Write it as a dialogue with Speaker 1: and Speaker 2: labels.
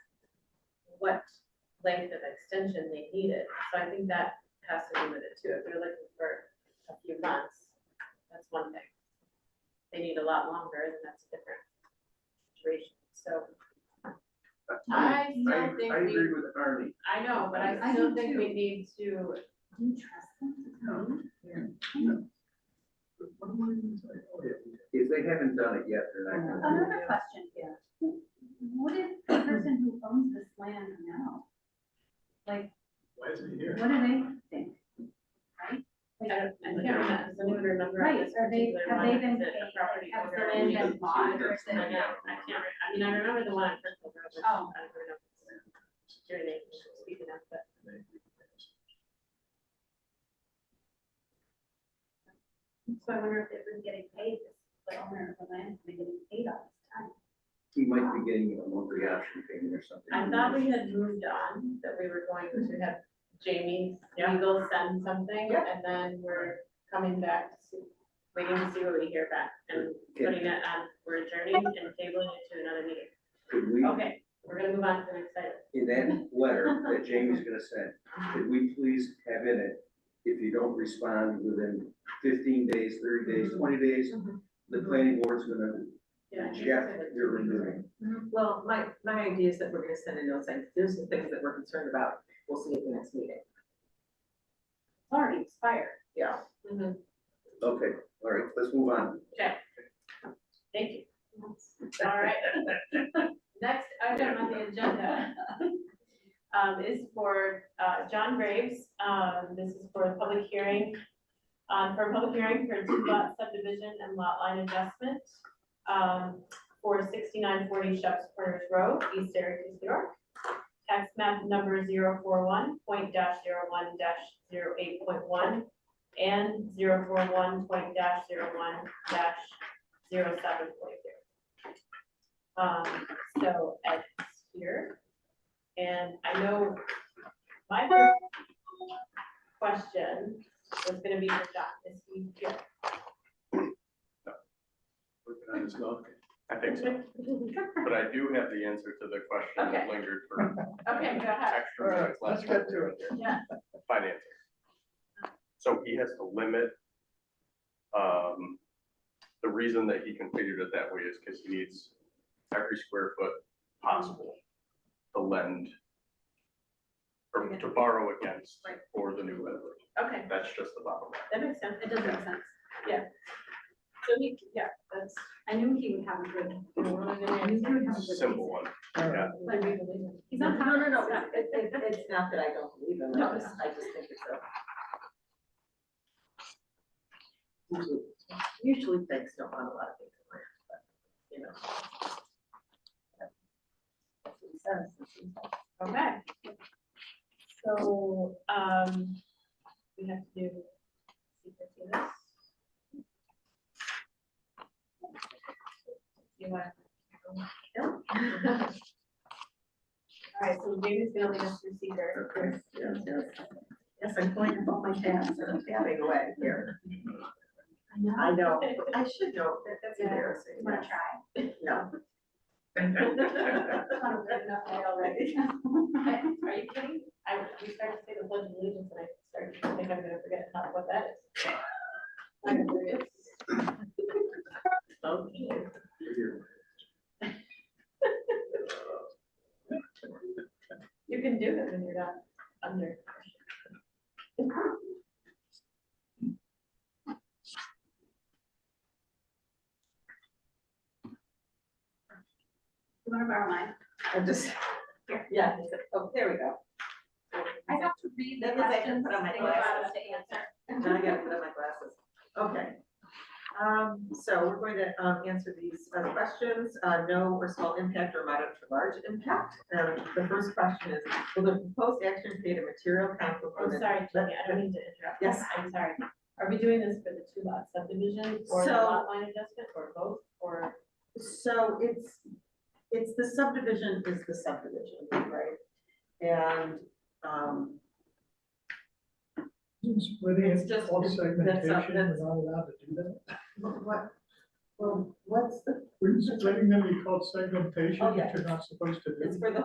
Speaker 1: what length of extension they needed. So I think that has to be limited too. If you're looking for a few months, that's one thing. They need a lot longer, then that's a different situation. So I
Speaker 2: I,
Speaker 1: still think
Speaker 2: I
Speaker 1: we,
Speaker 2: agree with Arnie.
Speaker 1: I know, but I
Speaker 3: I
Speaker 1: still
Speaker 3: do
Speaker 1: think
Speaker 3: too.
Speaker 1: we need to,
Speaker 3: Do you trust them?
Speaker 2: If they haven't done it yet, they're not gonna. do
Speaker 3: Another
Speaker 2: it.
Speaker 3: question here. What if the person who owns this land now, like,
Speaker 4: Why isn't he
Speaker 3: what
Speaker 4: here?
Speaker 3: do they think?
Speaker 1: I don't, I can't remember, does anyone remember on
Speaker 3: Right,
Speaker 1: this
Speaker 3: are they-
Speaker 1: particular one?
Speaker 3: have they
Speaker 1: Is
Speaker 3: been
Speaker 1: it a
Speaker 3: paid?
Speaker 1: property
Speaker 3: Have
Speaker 1: owner?
Speaker 3: they
Speaker 1: Only
Speaker 3: been
Speaker 1: two
Speaker 3: bought
Speaker 1: years.
Speaker 3: versus-
Speaker 1: I know, I can't, re- I mean, I remember the one on Crystal Road, which I don't
Speaker 3: Oh.
Speaker 1: remember your name, speaking of, but
Speaker 3: So I wonder if they've been getting paid, this the owner of the land, they're getting paid all this time.
Speaker 2: He might be getting a monthly option payment or something.
Speaker 1: I thought we had moved on, that we were going to have Jamie Engel send something, and then we're coming back to, see- waiting to see what we hear back, and putting it on, we're adjourning and tabling it to another meeting.
Speaker 2: Could we,
Speaker 1: Okay, we're gonna move on to the next item.
Speaker 2: in that letter that Jamie's gonna send, could we please have in it, if you don't respond within fifteen days, thirty days, twenty days,
Speaker 5: Mhm.
Speaker 2: the planning board's gonna
Speaker 1: Yeah.
Speaker 2: reject your removing.
Speaker 5: Well, my, my idea is that we're gonna send a note saying, here's the things that we're concerned about, we'll see you at the next meeting.
Speaker 3: It's already expired.
Speaker 5: Yeah.
Speaker 1: Mhm.
Speaker 2: Okay, all right, let's move on.
Speaker 1: Thank you. All right. Next item on the agenda um, is for uh, John Graves. Um, This is for a public hearing, um, for a public hearing for two lot subdivision and lot line adjustment um, for sixty-nine forty Shep's Corners Road, East Syracuse, New York. Tax map number 041.01-08.1 and 041.01-07.0. Um, so Ed's here. And I know my first question was gonna be for John, is he here?
Speaker 4: Working on his milk. I think so, but I do have the answer to the question that
Speaker 1: Okay.
Speaker 4: lingered for
Speaker 1: Okay, go ahead.
Speaker 4: extra minutes last time.
Speaker 1: Yeah,
Speaker 4: Finances. So he has to limit, um, the reason that he configured it that way is because he needs every square foot possible to lend or to borrow against
Speaker 1: Right.
Speaker 4: for the new lender.
Speaker 1: okay,
Speaker 4: That's just the bottom line.
Speaker 1: that makes sense.
Speaker 3: It does make sense.
Speaker 1: So he, yeah, that's.
Speaker 3: I knew he would have a good, I knew he would have a good reason.
Speaker 4: Simple one.
Speaker 3: Like, He's not.
Speaker 5: No, no, no, it's- it, it, it's not that I don't believe him, I just, I just think it's a. Usually banks don't want a lot of things in life, but, you know. That's what he says, that's what he says.
Speaker 1: Okay. So, um, we have to do secret to this. You want? All right, so Jamie's gonna lead us through secret.
Speaker 5: Yes, yes, yes. Yes, I'm going to put my pants and I'm fanning away here.
Speaker 3: I know.
Speaker 5: I know, I should know, that, that's
Speaker 1: Yeah.
Speaker 5: embarrassing,
Speaker 3: You wanna try?
Speaker 5: no.
Speaker 3: I thought it was good enough already.
Speaker 1: I- Are you kidding? I, you started to say the pledge of allegiance and I started to think I'm gonna forget how, what that is. I'm serious.
Speaker 5: Okay.
Speaker 1: You can do it when you're not under.
Speaker 3: You wanna borrow mine?
Speaker 5: I'm just, yeah, it's- oh, there we go.
Speaker 3: I have to read the
Speaker 5: That means I
Speaker 3: questions
Speaker 5: can put on my
Speaker 3: they allow us
Speaker 5: glasses.
Speaker 3: to answer.
Speaker 5: Now I gotta put on my glasses. Okay. Um, so we're going to, um, answer these uh, moderate, questions, uh, no or small impact or moderate to large impact. Um, the first question is, will the proposed action create a material conflict
Speaker 1: I'm
Speaker 5: with
Speaker 1: sorry, Jenny, I don't mean to interrupt.
Speaker 5: Yes.
Speaker 1: I'm sorry. Are we doing this for the two lot subdivision or the
Speaker 5: So-
Speaker 1: lot line adjustment or both or?
Speaker 5: So it's, it's the subdivision is the subdivision, right? And, um,
Speaker 6: Splitting
Speaker 5: It's
Speaker 6: it,
Speaker 5: just-
Speaker 6: all
Speaker 5: that's not-
Speaker 6: segmentation, we're
Speaker 5: that's-
Speaker 6: not allowed to do that.
Speaker 5: what- what, well, what's the,
Speaker 6: We're splitting them, we call it segmentation,
Speaker 5: Oh, yeah.
Speaker 6: which you're not supposed to do.
Speaker 5: it's for the